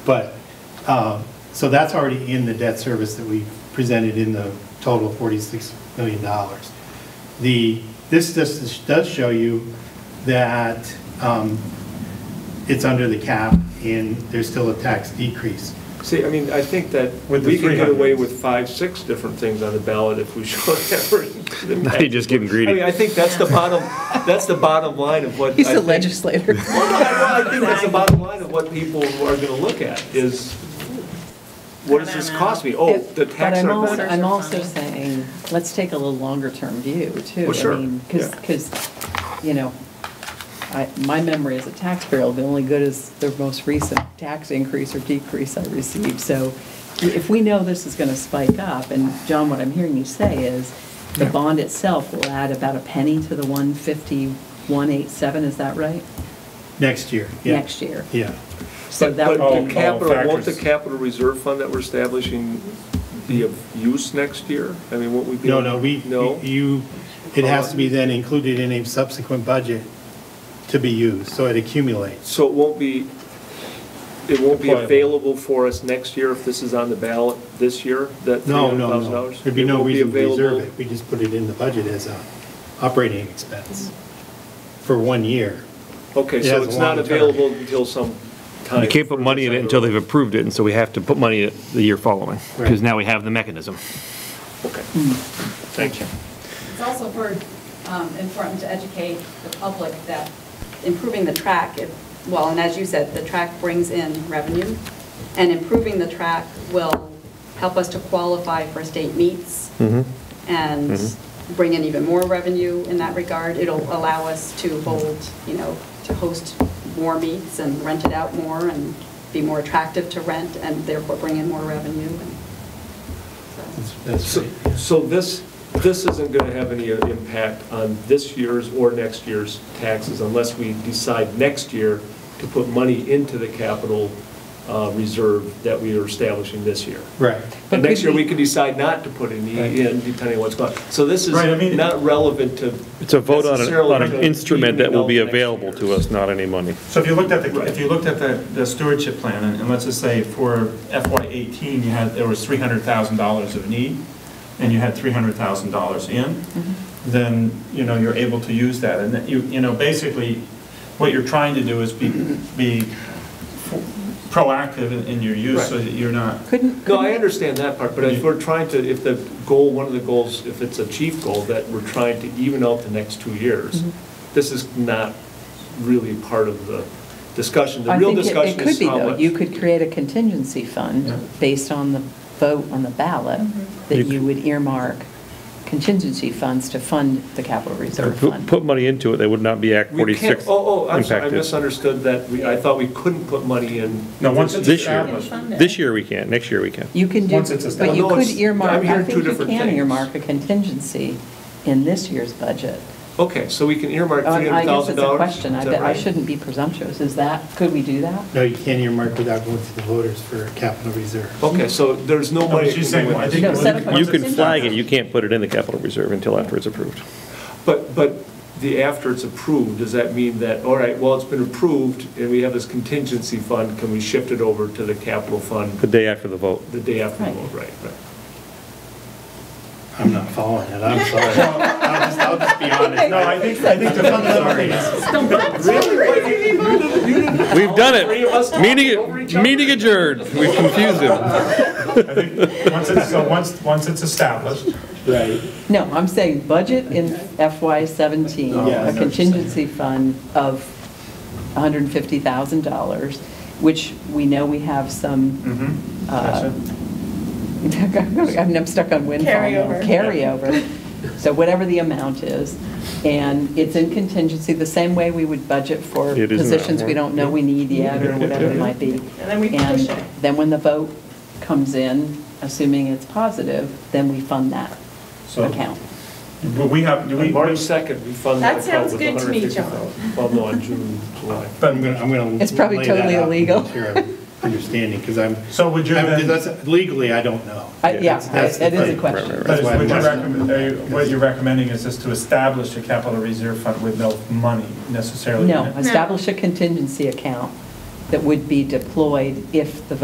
But, um, so that's already in the debt service that we presented in the total of $46 million. The, this just does show you that um, it's under the cap and there's still a tax decrease. See, I mean, I think that With the we could get away 300s. with five, six different things on the ballot if we showed every. Now you're just getting greedy. I mean, I think that's the bottom, that's the bottom line of what. He's I the think- legislator. Well, no, I I think that's the bottom line of what people are gonna look at is, what does this cost me? Oh, the But tax I'm on also, that. I'm also saying, let's take a little longer-term view, too. Well, sure, yeah. Because, you know, I, my memory as a taxpayer will be only good as the most recent tax increase or decrease I received. So if we know this is going to spike up, and John, what I'm hearing you say is, the bond itself will add about a penny to the 151.87, is that right? Next year, yeah. Next year. Yeah. So But- Oh, that but would the be- Capital, won't the factors. capital reserve fund that we're establishing be of use next year? I mean, won't we be? No, no, we, No? you, it has to be then included in a subsequent budget to be used, so it accumulates. So it won't be, it won't be Applicable. available for us next year if this is on the ballot this year, that No, no, $300,000? no. There'd be no won't reason to available- reserve it. We just put it in the budget as a operating expense for one year. Okay, It so has it's a long not term. available until some time. You can't put money in it until they've approved it, and so we have to put money in it the year following, Right. because now we have the mechanism. Okay. Thank you. It's also for, um, important to educate the public that improving the track, it- well, and as you said, the track brings in revenue, and improving the track will help us to qualify for state meets and bring in even more revenue in that regard. It'll allow us to hold, you know, to host more meets and rent it out more and be more attractive to rent and therefore bring in more revenue. and so- That's- That's So right. so this, this isn't going to have any uh, impact on this year's or next year's taxes unless we decide next year to put money into the capital uh, reserve that we are establishing this year. Right. And But next could year, we we- could decide not to put any Right. in, depending on what's going on. So this is Right, I mean- not relevant to. It's a vote on, a- necessarily on an to instrument that will be even know available next to year's. us, not any money. So if you looked at the, Right. if you looked at the the stewardship plan, and and let's just say for FY eighteen, you had, there was three hundred thousand dollars of need, and you had three hundred thousand dollars in, then, you know, you're able to use that, and that you, you know, basically, what you're trying to do is be, be proactive in- in your use, so Right. that you're not Couldn't, No, couldn't I understand that part, but if we're trying to, if the goal, one of the goals, if it's a chief goal, that we're trying to even out the next two years, Mm-hmm. this is not really part of the discussion. The I real think it- it discussion could is be, how though. much. You could create a contingency Yeah. fund based on the vote on the ballot, You that could- you would earmark contingency funds to fund the capital reserve Put, fund. put money into it, they would not be Act We can't, 46 oh, oh, I'm sorry, I impacted. misunderstood that. We, I thought we couldn't put money in. No, once it's This year, established. this year we can, next year we can. You can do, Once it's but established- you No, could it's- earmark, I'm hearing I two think you different can things. earmark a contingency in this year's budget. Okay, so we can earmark Uh, three I hundred guess thousand it's a dollars? question, I bet, I shouldn't be presumptuous, is that, could we do that? No, you can't earmark without going to the voters for capital reserve. Okay, so there's no No, money. but she's saying, well, I think No, once- set up a- once You can it's- flag it, you can't put it in the capital reserve until after it's approved. But, but the after it's approved, does that mean that, all right, well, it's been approved, and we have this contingency fund, can we shift it over to the capital The fund day after the vote. the day after the Right. vote, right, right? I'm not following it, I'm sorry. I'll just, I'll just be honest. No, I think, I think the fundamental thing is, We've done Three of us it. talking over each other. Meeting, meeting adjourned. We've confused them. I think, once it's, so once, once it's established, Right. No, I'm saying budget in FY '17, Oh, I know what a you're contingency fund of $150,000, which we know we have some, mhm, uh, Gotcha. I'm I'm stuck on windfall. now. Carryover. Carryover, so whatever the amount is, and it's in contingency, the same way we would budget for It is an positions we hour. don't know we need yet, or whatever it might be. And then we push it. And then when the vote comes in, assuming it's positive, then we fund that So- account. But we have, do we, March 2nd, we fund that That account sounds with good to me, John. 150,000. Well, no, on June, July. But I'm gonna, I'm gonna. It's probably lay that totally out and illegal. make Sure, I'm understanding, because I'm, so would you I'm- then, that's- legally, I don't know. I- Yeah, That's- I- that's the it is thing. a question. Right, but That's is- why I'm would you asking. recommend, are you- what you're recommending is just to establish a capital reserve fund with no money necessarily? in No, it? establish a contingency account that would be deployed if the vote